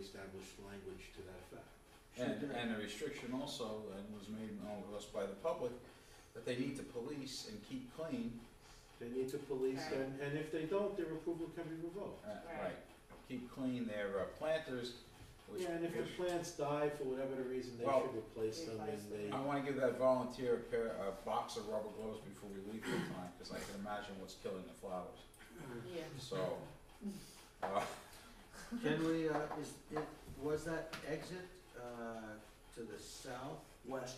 established language to that effect. And, and a restriction also, and was made known to us by the public, that they need to police and keep clean, They need to police, Right. and, and if they don't, their approval can be revoked. uh, Right. right, keep clean their uh, planters, which. Yeah, and if the which- plants die for whatever the reason, they Well- should replace them and Replace they, I wanna give that volunteer a pair, a box of rubber gloves before we leave for time, cause I can imagine what's killing the flowers, Yeah. so. uh, Can we, uh, is, it, was that exit, uh, to the south? West.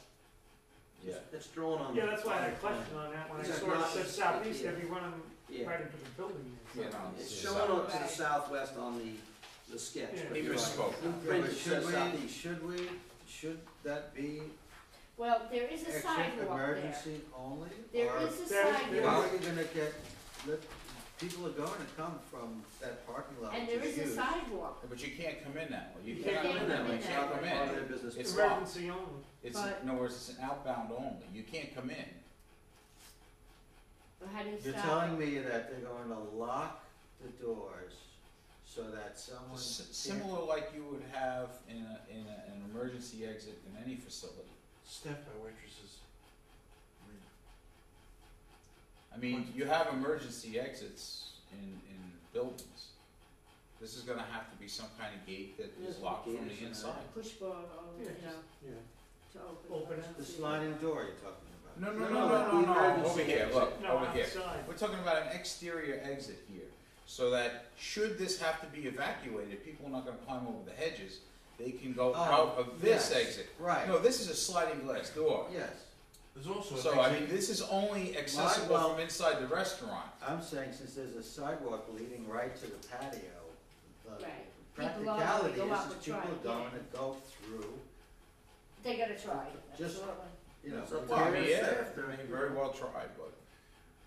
Yeah, It's drawn on. Yeah, that's why I had a question on that, when I Is that sort of not- said southeast, yeah. every one of them Yeah, right into the building. you know. It's so- shown on, to the Right. southwest on the, the sketch, Yeah. but He you're right. misspoke, Yeah, Print but it says should we, southeast. should we, should that be Well, there is a exit sidewalk there. emergency only? There or- is There is- a Then How sidewalk, are you gonna get, the, people are going to come from that parking lot, and which there is a is huge. sidewalk. But you can't come in that way, you You cannot can't come in that come way, in you that can't way. come Part of in, their business. it's locked, Emergency only. it's, But- in other words, it's an outbound only, you can't come in. How do you You're stop telling it? me that they're going to lock the doors so that someone S- can't Similar like you would have in a, in a, an emergency exit in any facility. Staff by waitresses. I mean, you have emergency exits in, in buildings. This is gonna have to be some kind of gate that is Yeah, locked from gate or the something. inside. Push bar, or, you Yeah, know, yeah. to open. Open up it. The to- sliding door you're talking about. No, no, No, no, no, no, no, the no, emergency over here, look, No, over here. outside. We're talking about an exterior exit here, so that should this have to be evacuated, people are not gonna climb over the hedges. They can go Oh, out of this yes, exit. Right, No, this is a sliding glass door. yes. There's also. So I mean, this is only accessible well- from inside the restaurant. I'm saying since there's a sidewalk leading right to the patio, the Right. People are- practicality go is out that and people try, are yeah. going to go through, They gotta try, Just- absolutely. you know. It's up to Well, I mean, various yeah, staff. I mean, very well tried, but.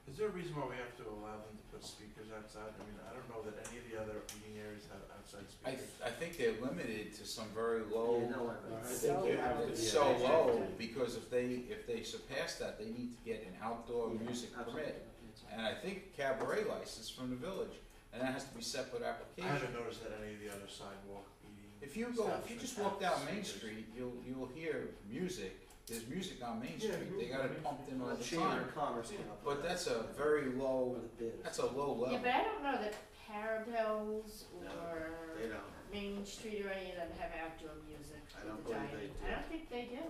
Is there a reason why we have to allow them to put speakers outside? I mean, I don't know that any of the other meeting areas have outside I, speakers. I think they're limited to some very You low, know what Uh, I I mean. think they have to be. it's so an exit. low, because if they, if they surpass that, they need to get an outdoor Yeah, music Absolutely. permit. And I think cabaret license from the village, and that has to be separate I application. haven't noticed that any of the other sidewalk meeting. If you go, if you establishments just walk down have Main speakers. Street, you'll, you'll hear music, there's music on Main Yeah, Street, they music got on Main it pumped in all Well, the Chamber time. of Commerce came up with But that. that's a very low, With a bid. that's a low Yeah, level. but I don't know that Parabels No, They or don't, Main Street or any of them have outdoor music I with don't the believe they dining. do. I don't think they do.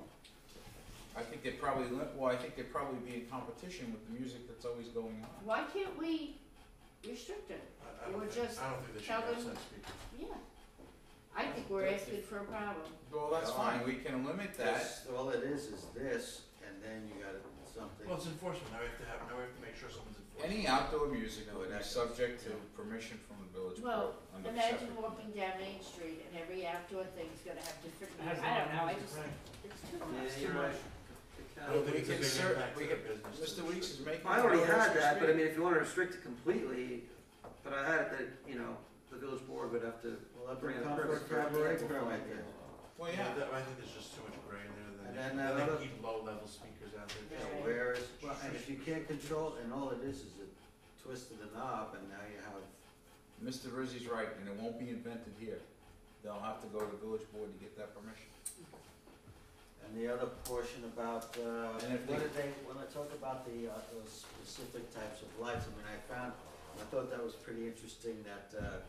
I think they probably, lim- well, I think they probably be in competition with the music that's always going on. Why can't we restrict it? I, I Or don't think, just I don't think they should tell have them- outside speakers. Yeah. I think we're asking for a problem. Well, that's Yeah. fine, Uh, we can limit that. that's, all it is, is this, and then you got something. Well, it's enforcement. Now we have to have, now we have to make sure someone's enforcing. Any outdoor music would be subject to permission from the village board Well, under the Imagine separate. walking down Main Street and every outdoor thing's gonna have different, It I has a don't know, lot I of just, music, it's too Yeah, much. you're right. The I county- don't think We it's a can big cer- impact to we their can- business. to Mr. restrict Weeks is making. I already a had that, but restriction. I mean, if you wanna restrict it completely, but I had it that, you know, the village board would have to Well, let bring them in a come for a permit. cabaret permit then. Well, Yeah, yeah, that- I think there's just too much gray in there And that then they, that that they other- keep low level speakers out You there. know, Yeah. where is, well, and if you can't control, it, and all it is is it twisted the knob, and now you have Mr. Rizzi's right, and it won't be invented here. They'll have to go to the village board to get that permission. And the other portion about, uh, And if what they- did they, when I talk about the, uh, those specific types of lights, I mean, I found, I thought that was pretty interesting that, uh,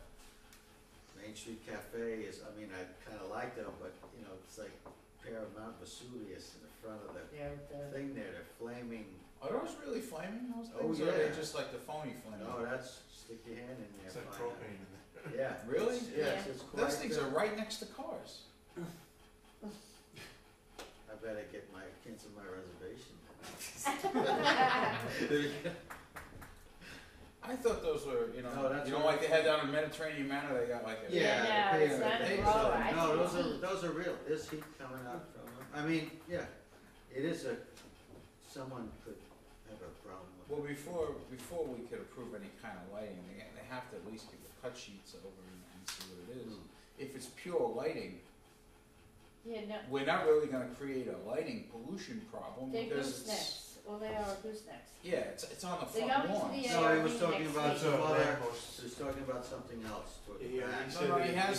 Main Street Cafe is, I mean, I kinda like them, but, you know, it's like a pair of Mount Vesuvius in the front of the They're the- thing there, they're flaming, Are those really flaming, those Oh, things, or are they yeah. just like the phony flaming? no, oh, that's, stick your hand in there, It's like find out. propane in there. Yeah. Really? It's- Yes, it's quite. Those things uh, are right next to cars. I better get my, cancel my reservation. I thought those were, you No, know, that's you know, what- like they had down in Mediterranean Manor, they got like a. Yeah, Yeah, no, the it's paper, not the a paper. blower. I No, think those are, heat. those are real, there's heat coming out from them, I mean, yeah, it is a, someone could have a problem with Well, before, before we could approve any kind of lighting, they, they have to at least get the cut sheets over and, and see what it is. If it's pure lighting, Yeah, no, we're not really gonna create a lighting pollution problem they're because goose it's, necks, well, they are goose necks. yeah, it's, it's on the They front go into lawn. the so- No, he ARB was talking next about week. So Well, that there- most- it. He was talking about something else, toward the Yeah, back. he No, said no, that he has